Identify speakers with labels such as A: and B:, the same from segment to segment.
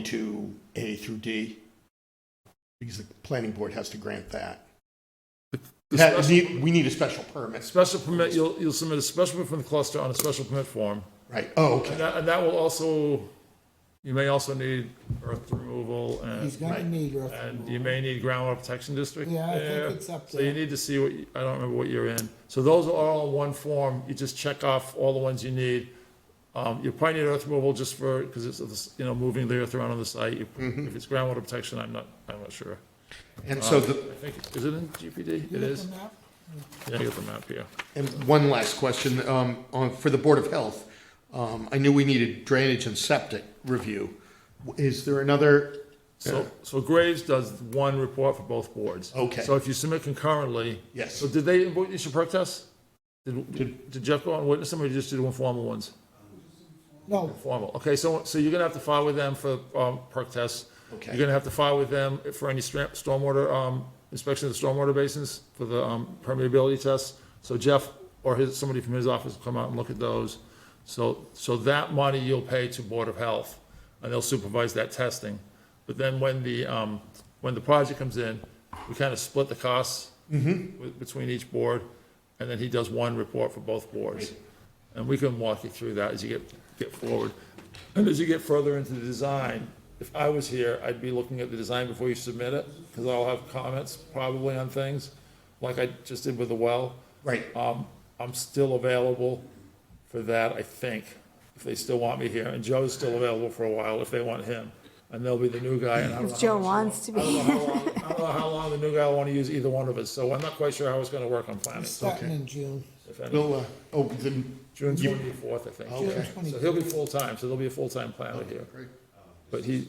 A: twenty-two A through D. Because the planning board has to grant that.
B: The
A: That-
B: special-
A: we we need a special permit,
B: Special permit, you'll, you'll submit a special permit from the cluster on a special permit form.
A: right? Oh,
B: And
A: okay,
B: that, and that will also, you may also need earth removal and,
C: He's gonna need earth
B: Uh, and
C: removal.
B: you may need groundwater protection district.
C: Yeah, I think
B: there.
C: it's up
B: So you
C: there.
B: need to see what, you- I don't remember what you're in. So those are all in one form. You just check off all the ones you need. Um, you probably need earth removal just for, because it's, you know, moving the earth around on the site. You-
C: Mm-hmm.
B: If it's groundwater protection, I'm not, I'm not sure.
A: and so the,
B: I think, is it in GPD? It is. Yeah, I got the map here.
A: And one last question, um, on, for the Board of Health. Um, I knew we needed drainage and septic review. Is there another,
B: So, so Graves does one report for both boards.
A: Okay.
B: So if you submit concurrently.
A: Yes.
B: So did they witness your protest? Did, did Jeff go out and witness them, or you just did informal ones?
C: No,
B: Formal, okay, so, so you're gonna have to file with them for, um, perk tests.
A: Okay.
B: You're gonna have to file with them for any stra- stormwater, um, inspection of the stormwater basins for the, um, permeability tests. So Jeff or his, somebody from his office will come out and look at those. So, so that money you'll pay to Board of Health, and they'll supervise that testing. But then when the, um, when the project comes in, we kind of split the costs with- between each board, and then he does one report for both boards. And we can walk you through that as you get, get forward. And as you get further into the design, if I was here, I'd be looking at the design before you submit it, because I'll have comments probably on things, like I just did with the well.
A: right,
B: Um, I'm still available for that, I think, if they still want me here, and Joe's still available for a while if they want him. And they'll be the new guy, and I don't know.
D: If
B: how
D: Joe
B: much-
D: wants to
B: I don't know
D: be.
B: how long, I don't know how long the new guy will want to use either one of us, so I'm not quite sure how it's gonna work on planning,
C: starting in June.
B: if any.
A: we'll, uh, oh, the,
B: June twenty-fourth, I think.
A: Oh, Okay.
C: June
B: So he'll be full-time, so there'll be a full-time planner here.
A: great.
B: But he,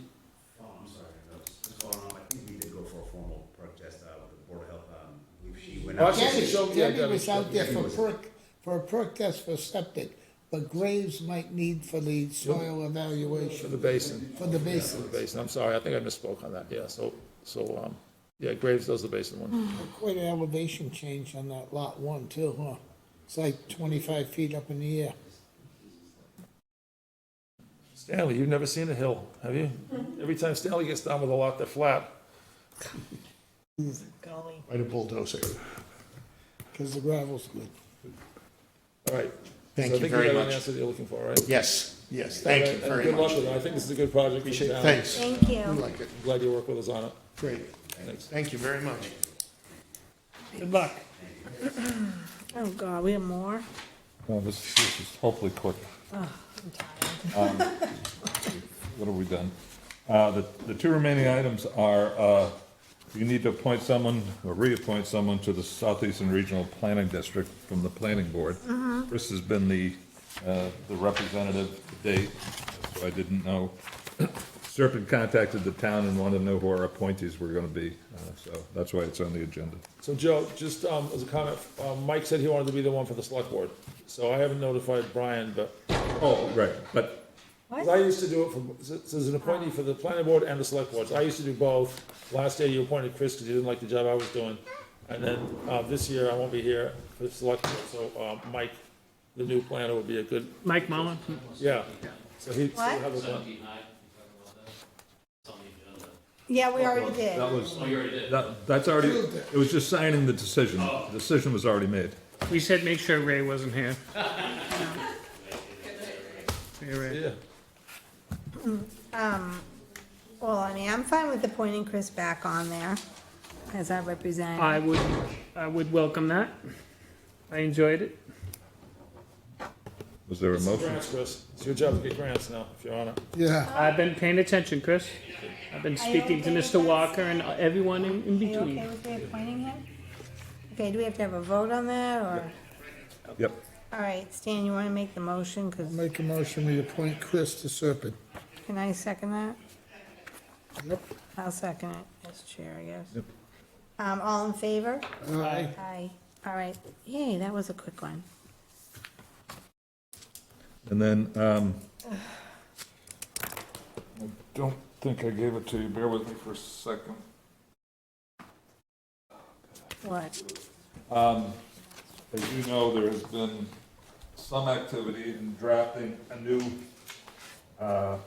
E: Oh, I'm sorry, that's, that's going on, I think we did go for a formal protest, uh, with the Board of Health, um, I believe she went out.
B: Okay.
C: Debbie,
B: Show me that,
C: Debbie was
B: Debbie.
C: out there for perk, for a perk test for septic, but Graves might need for the soil
B: for
C: evaluation,
B: the basin,
C: for
B: for the
C: the basin.
B: basin, I'm sorry, I think I misspoke on that, yeah, so, so, um, yeah, Graves does the basin one.
C: Quite an elevation change on that lot one too, huh? It's like twenty-five feet up in the air.
B: Stanley, you've never seen a hill, have you? Every time Stanley gets down with a lot, they're flat.
A: right, a bulldozer.
C: Cause the gravel's good.
B: All right.
A: Thank
B: So I
A: you
B: think
A: very
B: got an
A: much.
B: Answer that you're looking for, right?
A: Yes, yes, thank you
B: And
A: very
B: Good luck
A: much.
B: with it, I think this is a good project. for the
A: Appreciate it,
B: town.
A: thanks.
D: Thank
A: I
D: you.
A: like it,
B: Glad you worked with us on it.
A: great.
B: Thanks.
A: Thank you very much.
C: Good luck.
D: Oh, God, we have more?
F: No, this is, this is hopefully quick. Um, What have we done? Uh, the, the two remaining items are, uh, you need to appoint someone, or reappoint someone to the Southeastern Regional Planning District from the Planning Board. Chris has been the, uh, the representative to date, so I didn't know. Serpent contacted the town and wanted to know who our appointees were gonna be, uh, so that's why it's on the agenda.
B: So Joe, just um, as a comment, um, Mike said he wanted to be the one for the select board, so I haven't notified Brian, but,
F: Oh, right, but
B: 'cause I used to do it for, so so there's an appointee for the planning board and the select boards, I used to do both. Last year you appointed Chris because you didn't like the job I was doing, and then, uh, this year I won't be here for the select board, so, um, Mike, the new planner would be a good,
G: Mike Mullin?
B: yeah. So he'd still
D: What?
B: have a, one.
D: Yeah, we Oh, already did. Oh.
F: That was. That, that's already, it was just signing the decision. The decision was already made.
G: We said make sure Ray wasn't here. Hey, Ray.
B: yeah,
D: Well, I mean, I'm fine with appointing Chris back on there as our representative.
G: I would, I would welcome that. I enjoyed it.
F: Was there a motion?
B: grants, Chris, it's your job to get grants now, if you're on it.
C: Yeah,
G: I've been paying attention, Chris. I've been speaking to
D: okay with
G: Mr.
D: this?
G: Walker and everyone in
D: Are
G: in
D: you okay
G: between.
D: with reappointing him? Okay, do we have to have a vote on that, or?
F: Yep.
D: All right, Stan, you want to make the motion, because,
C: make a motion, we appoint Chris to Serpent.
D: can I second that?
C: Yep.
D: I'll second it, as chair, I guess. Um, all in favor?
C: Aye.
D: Aye. All right, yay, that was a quick one.
F: And then, um, I don't think I gave it to you. Bear with me for a second.
D: What?
F: As you know, there has been some activity in drafting a new, uh,